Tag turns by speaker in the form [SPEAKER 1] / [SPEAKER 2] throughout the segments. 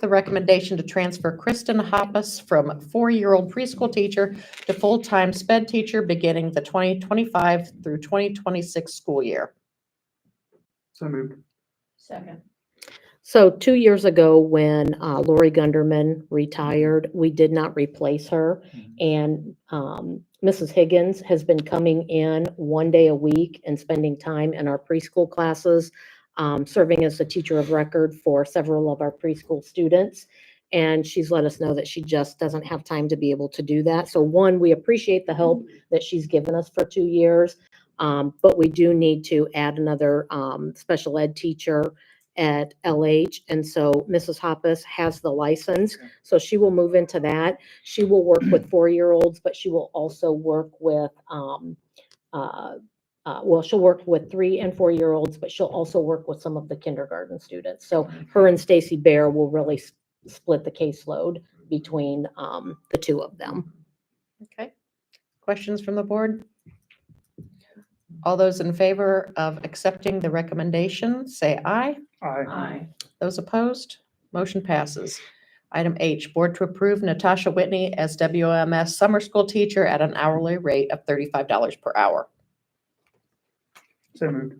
[SPEAKER 1] the recommendation to transfer Kristen Hoppus from four-year-old preschool teacher to full-time sped teacher beginning the 2025 through 2026 school year.
[SPEAKER 2] So moved.
[SPEAKER 3] Second.
[SPEAKER 4] So two years ago, when uh, Lori Gunderman retired, we did not replace her. And um, Mrs. Higgins has been coming in one day a week and spending time in our preschool classes, um, serving as the teacher of record for several of our preschool students. And she's let us know that she just doesn't have time to be able to do that. So one, we appreciate the help that she's given us for two years. Um, But we do need to add another um, special ed teacher at LH. And so Mrs. Hoppus has the license,
[SPEAKER 2] Okay.
[SPEAKER 4] so she will move into that. She will work with four-year-olds, but she will also work with, um, uh, uh, well, she'll work with three and four-year-olds, but she'll also work with some of the kindergarten students. So her and Stacy Bear will really s- split the caseload between um, the two of them.
[SPEAKER 1] Okay. Questions from the board? All those in favor of accepting the recommendation, say aye.
[SPEAKER 2] Aye.
[SPEAKER 3] Aye.
[SPEAKER 1] Those opposed? Motion passes. Item H, board to approve Natasha Whitney as WMS summer school teacher at an hourly rate of $35 per hour.
[SPEAKER 2] So moved.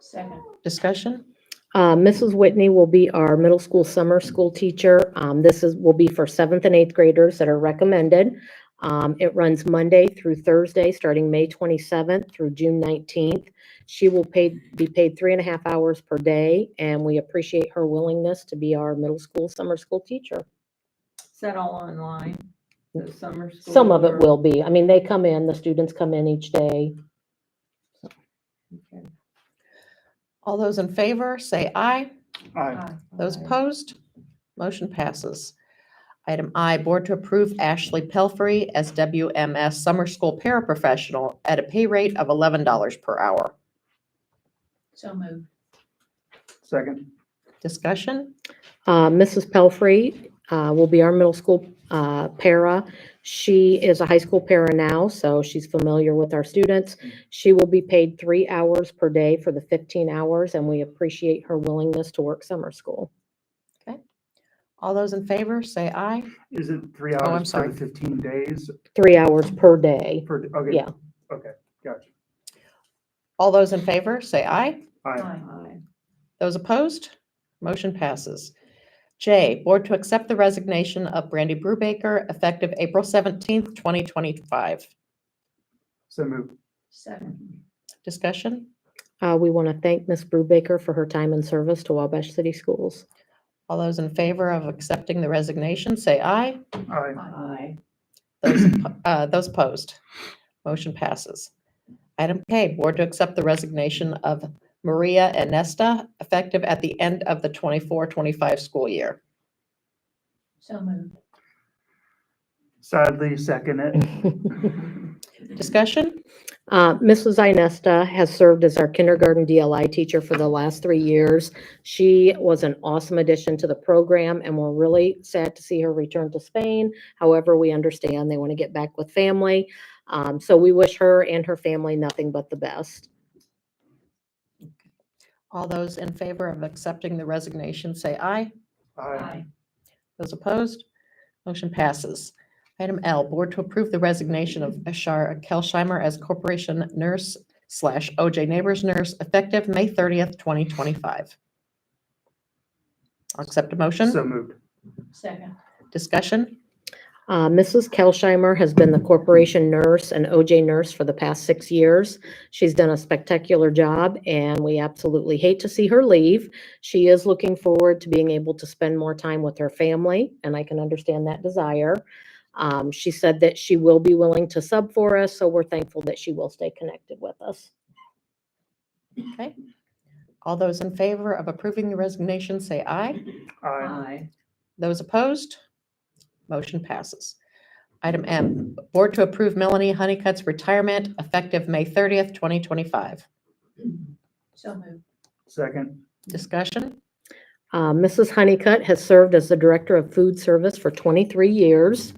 [SPEAKER 3] Second.
[SPEAKER 1] Discussion?
[SPEAKER 4] Uh, Mrs. Whitney will be our middle school summer school teacher. Um, this is, will be for seventh and eighth graders that are recommended. Um, it runs Monday through Thursday, starting May twenty-seventh through June nineteenth. She will pay, be paid three and a half hours per day, and we appreciate her willingness to be our middle school summer school teacher.
[SPEAKER 3] Is that all online? The summer school?
[SPEAKER 4] Some of it
[SPEAKER 3] or-
[SPEAKER 4] will be. I mean, they come in, the students come in each day.
[SPEAKER 3] Okay.
[SPEAKER 1] All those in favor, say aye.
[SPEAKER 2] Aye.
[SPEAKER 3] Aye.
[SPEAKER 1] Those
[SPEAKER 3] Aye.
[SPEAKER 1] opposed? Motion passes. Item I, board to approve Ashley Pelfrey as WMS summer school paraprofessional at a pay rate of $11 per hour.
[SPEAKER 3] So moved.
[SPEAKER 2] Second.
[SPEAKER 1] Discussion?
[SPEAKER 4] Uh, Mrs. Pelfrey uh, will be our middle school uh, para. She is a high school para now, so she's familiar with our students. She will be paid three hours per day for the 15 hours, and we appreciate her willingness to work summer school.
[SPEAKER 1] All those in favor, say aye.
[SPEAKER 2] Is it three
[SPEAKER 1] I'm
[SPEAKER 2] hours for
[SPEAKER 1] sorry.
[SPEAKER 2] the fifteen days
[SPEAKER 4] Three hours per day.
[SPEAKER 2] per, okay?
[SPEAKER 4] Yeah.
[SPEAKER 2] Okay, gotcha.
[SPEAKER 1] All those in favor, say aye.
[SPEAKER 2] Aye.
[SPEAKER 3] Aye.
[SPEAKER 1] Those opposed? Motion passes. J, board to accept the resignation of Brandy Brubaker effective April 17th, 2025.
[SPEAKER 2] So moved.
[SPEAKER 3] Second.
[SPEAKER 1] Discussion?
[SPEAKER 4] Uh, We want to thank Ms. Brubaker for her time and service to Wabash City Schools.
[SPEAKER 1] All those in favor of accepting the resignation, say aye.
[SPEAKER 2] Aye.
[SPEAKER 3] Aye.
[SPEAKER 1] Those oppo- uh, those opposed? Motion passes. Item K, board to accept the resignation of Maria Anesta effective at the end of the 24-25 school year.
[SPEAKER 3] So moved.
[SPEAKER 2] Sadly, second it.
[SPEAKER 1] Discussion?
[SPEAKER 4] Uh, Mrs. Inesta has served as our kindergarten DLI teacher for the last three years. She was an awesome addition to the program, and we're really sad to see her return to Spain. However, we understand they want to get back with family. Um, So we wish her and her family nothing but the best.
[SPEAKER 1] All those in favor of accepting the resignation, say aye.
[SPEAKER 2] Aye.
[SPEAKER 1] Those opposed? Motion passes. Item L, Board to approve the resignation of Ashara Kelsheimer as Corporation Nurse slash OJ Neighbors Nurse effective May 30th, 2025. I'll accept a motion.
[SPEAKER 2] So moved.
[SPEAKER 3] Second.
[SPEAKER 1] Discussion?
[SPEAKER 4] Uh, Mrs. Kelsheimer has been the corporation nurse and OJ nurse for the past six years. She's done a spectacular job, and we absolutely hate to see her leave. She is looking forward to being able to spend more time with her family, and I can understand that desire. Um, She said that she will be willing to sub for us, so we're thankful that she will stay connected with us.
[SPEAKER 1] Okay. All those in favor of approving the resignation, say aye.
[SPEAKER 2] Aye.
[SPEAKER 3] Aye.
[SPEAKER 1] Those opposed? Motion passes. Item M, Board to approve Melanie Honeycutt's retirement effective May 30th, 2025.
[SPEAKER 3] So moved.
[SPEAKER 2] Second.
[SPEAKER 1] Discussion?
[SPEAKER 4] Uh, Mrs. Honeycutt has served as the Director of Food Service for 23 years.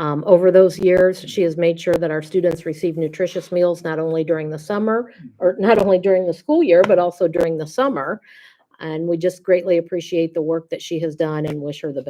[SPEAKER 4] Um, Over those years, she has made sure that our students receive nutritious meals not only during the summer, or not only during the school year, but also during the summer. And we just greatly appreciate the work that she has done and wish her the best.